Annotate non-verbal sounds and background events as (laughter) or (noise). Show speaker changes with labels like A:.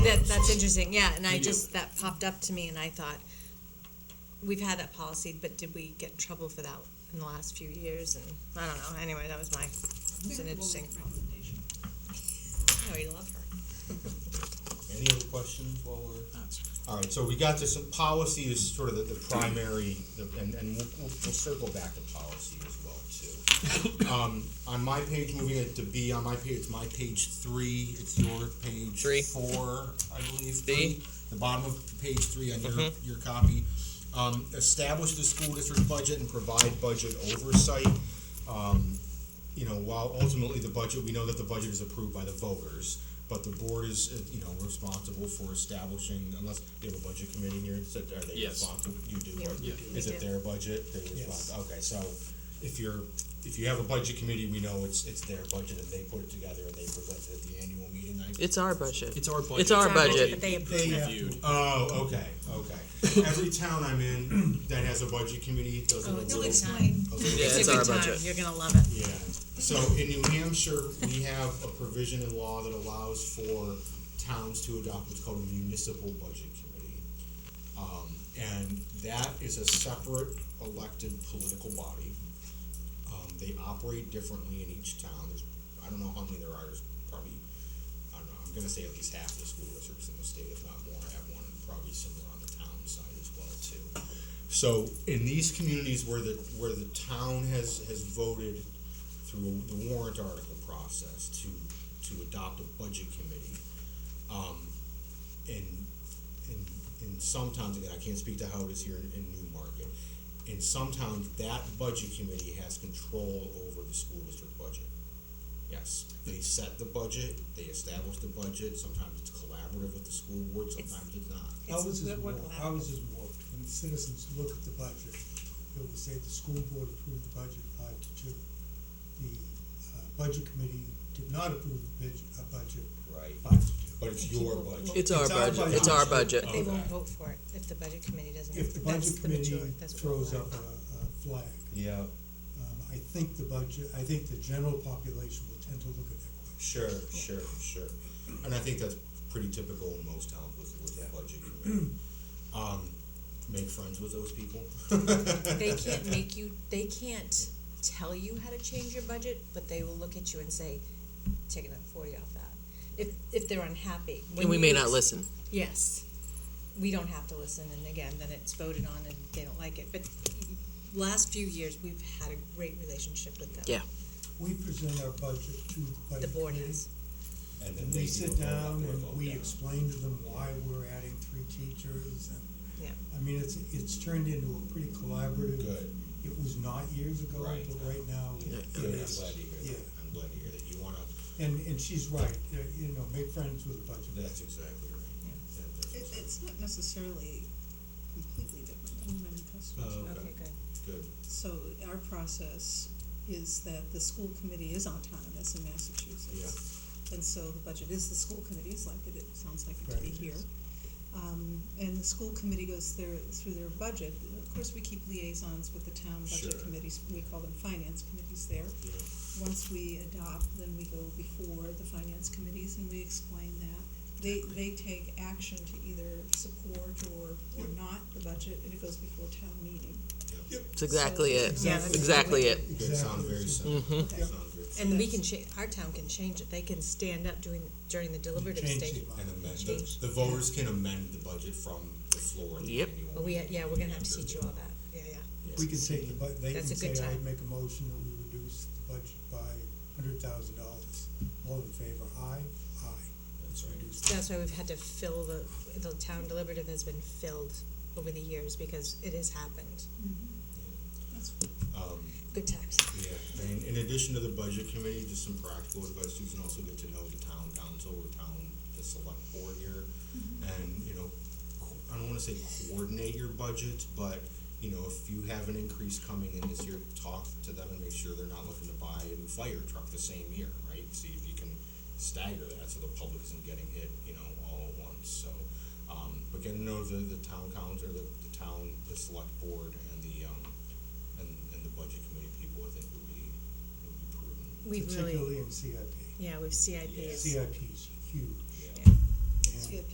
A: That, that's interesting, yeah, and I
B: You do.
A: just, that popped up to me and I thought, we've had that policy, but did we get in trouble for that in the last few years and, I don't know, anyway, that was my, it's an interesting. Oh, you love her.
C: Any other questions while we're? All right, so we got this, policy is sort of the, the primary, the- and, and we'll, we'll we'll circle back to policy as well too. Um, on my page, moving it to B, on my page, it's my page three, it's your page
D: Three.
C: four, I believe.
D: B. Mm-hmm.
C: three. The bottom of page three on your, your copy. Um, establish the school district budget and provide budget oversight. Um, you know, while ultimately the budget, we know that the budget is approved by the voters, but the board is, uh, you know, responsible for establishing, unless you have a budget committee here, so are they
B: Yes.
C: responsible? You do,
A: Yeah,
C: right?
A: we
C: Is
A: do.
C: it their budget? They're responsible, okay, so if you're, if you have a budget committee, we know it's, it's their budget and they put it together and they present it at the annual meeting. I-
D: It's our budget.
B: It's our budget.
D: It's our budget.
A: But they
C: They
A: approved
C: have
A: it.
C: to-
B: Reviewed.
C: Oh, okay, okay. Every town I'm in that has a budget committee does it a
A: Oh, it's a
C: little.
A: good time.
C: a little-
D: Yeah,
A: It's
D: it's
A: a
D: our
A: good time,
D: budget.
A: you're gonna love it.
C: Yeah, so in New Hampshire, we have a provision in law that allows for towns to adopt what's called a municipal budget committee. Um, and that is a separate elected political body. Um, they operate differently in each town, there's, I don't know how many there are, there's probably, I don't know, I'm gonna say at least half the school districts in the state, if not more, have one, and probably similar on the town side as well too. So in these communities where the, where the town has, has voted through the warrant article process to, to adopt a budget committee. Um, and, and, and some towns, again, I can't speak to how it is here in, in Newmarket. In some towns, that budget committee has control over the school district budget. Yes, they set the budget, they establish the budget, sometimes it's collaborative with the school board, sometimes it's not.
E: How is this
A: It's-
E: work, how is this work, when citizens look at the budget, it will say the school board approved the budget five to two. The, uh, budget committee did not approve the budget, uh, budget
C: Right.
E: five to two.
C: But it's your budget.
D: It's our budget. It's our budget.
A: They won't
C: Okay.
A: vote for it if the budget committee doesn't.
E: If the
A: that's
E: budget
A: majority-
E: committee
A: that's what
E: throws
A: we're-
E: up a, a flag,
C: Yeah,
E: um, I think the budget, I think the general population will tend to look at that question.
C: sure, sure, sure. And I think that's pretty typical in most towns with, with the budget
E: (clears throat)
C: committee. Um, make friends with those people.
A: They can't make you, they can't tell you how to change your budget, but they will look at you and say, take another forty off that, if, if they're unhappy. When
D: And we may
A: you-
D: not listen.
A: Yes, we don't have to listen, and again, then it's voted on and they don't like it, but last few years, we've had a great relationship with them.
D: Yeah.
E: We present our budget to the
A: The
E: budget
A: board
E: committee,
A: has,
C: And then
E: and
C: they do
E: we
C: a
E: sit
C: vote up
E: down
C: or a vote
E: and we
C: down.
E: explain to them why we're adding three teachers and
A: yeah,
E: I mean, it's, it's turned into a pretty collaborative.
C: Good.
E: It was not years ago,
C: Right.
E: but right now
C: Yeah,
E: it
C: Good, I'm glad
E: is.
C: to hear
E: Yeah,
C: that. I'm glad to hear that. You wanna,
E: and, and she's right, uh, you know, make friends with the budget.
C: that's exactly right. That-
F: It,
C: that's-
F: it's not necessarily completely different than many customers.
C: Oh,
A: okay, good.
C: Good,
F: So our process is that the school committee is autonomous in Massachusetts. And so the budget is the school committee's, like it, it sounds like it to be
E: Right.
F: here. Um, and the school committee goes their, through their budget. Of course, we keep liaisons with the town budget
C: Sure.
F: committees, we call them finance committees there.
C: yeah.
F: Once we adopt, then we go before the finance committees and we explain that. They, they take action to either support or, or not the budget, and it goes before town meeting.
D: It's exactly it.
A: Yeah, that's-
D: Exactly it.
C: Good, sound very simple.
F: Yep.
C: Sound very
A: and we can cha- our town can change it, they can stand up during, during the deliberative
E: Change
A: stage.
E: the
C: And amend, the,
A: Change.
C: the voters can amend the budget from the floor of the
D: Yep.
C: annual.
A: But we,
C: meeting.
A: yeah, we're gonna have to
C: Sure.
A: teach you all that, yeah, yeah.
E: We can take the, but they can
A: That's a
E: say,
A: good
E: I
A: time.
E: make a motion that we reduce the budget by hundred thousand dollars. All in favor, aye, aye.
C: That's right.
E: Reduce
A: That's why we've had to fill the, the town deliberative has been filled over the years because it has happened.
C: Mm-hmm.
F: That's
C: Um,
A: Good times.
C: Yeah, and in addition to the budget committee, just some practical advice, you can also get to know the town council, the town, the select board here. And, you know, co- I don't wanna say coordinate your budgets, but, you know, if you have an increase coming in this year, talk to them and make sure they're not looking to buy a new fire truck the same year, right? See if you can stagger that so the public isn't getting hit, you know, all at once, so. Um, but get to know the, the town council, the, the town, the select board and the, um, and, and the budget committee people, I think would be, would be prudent.
A: We've really,
E: Particularly in CIP.
A: yeah, we've CIP
C: Yeah.
A: is,
E: CIP is huge.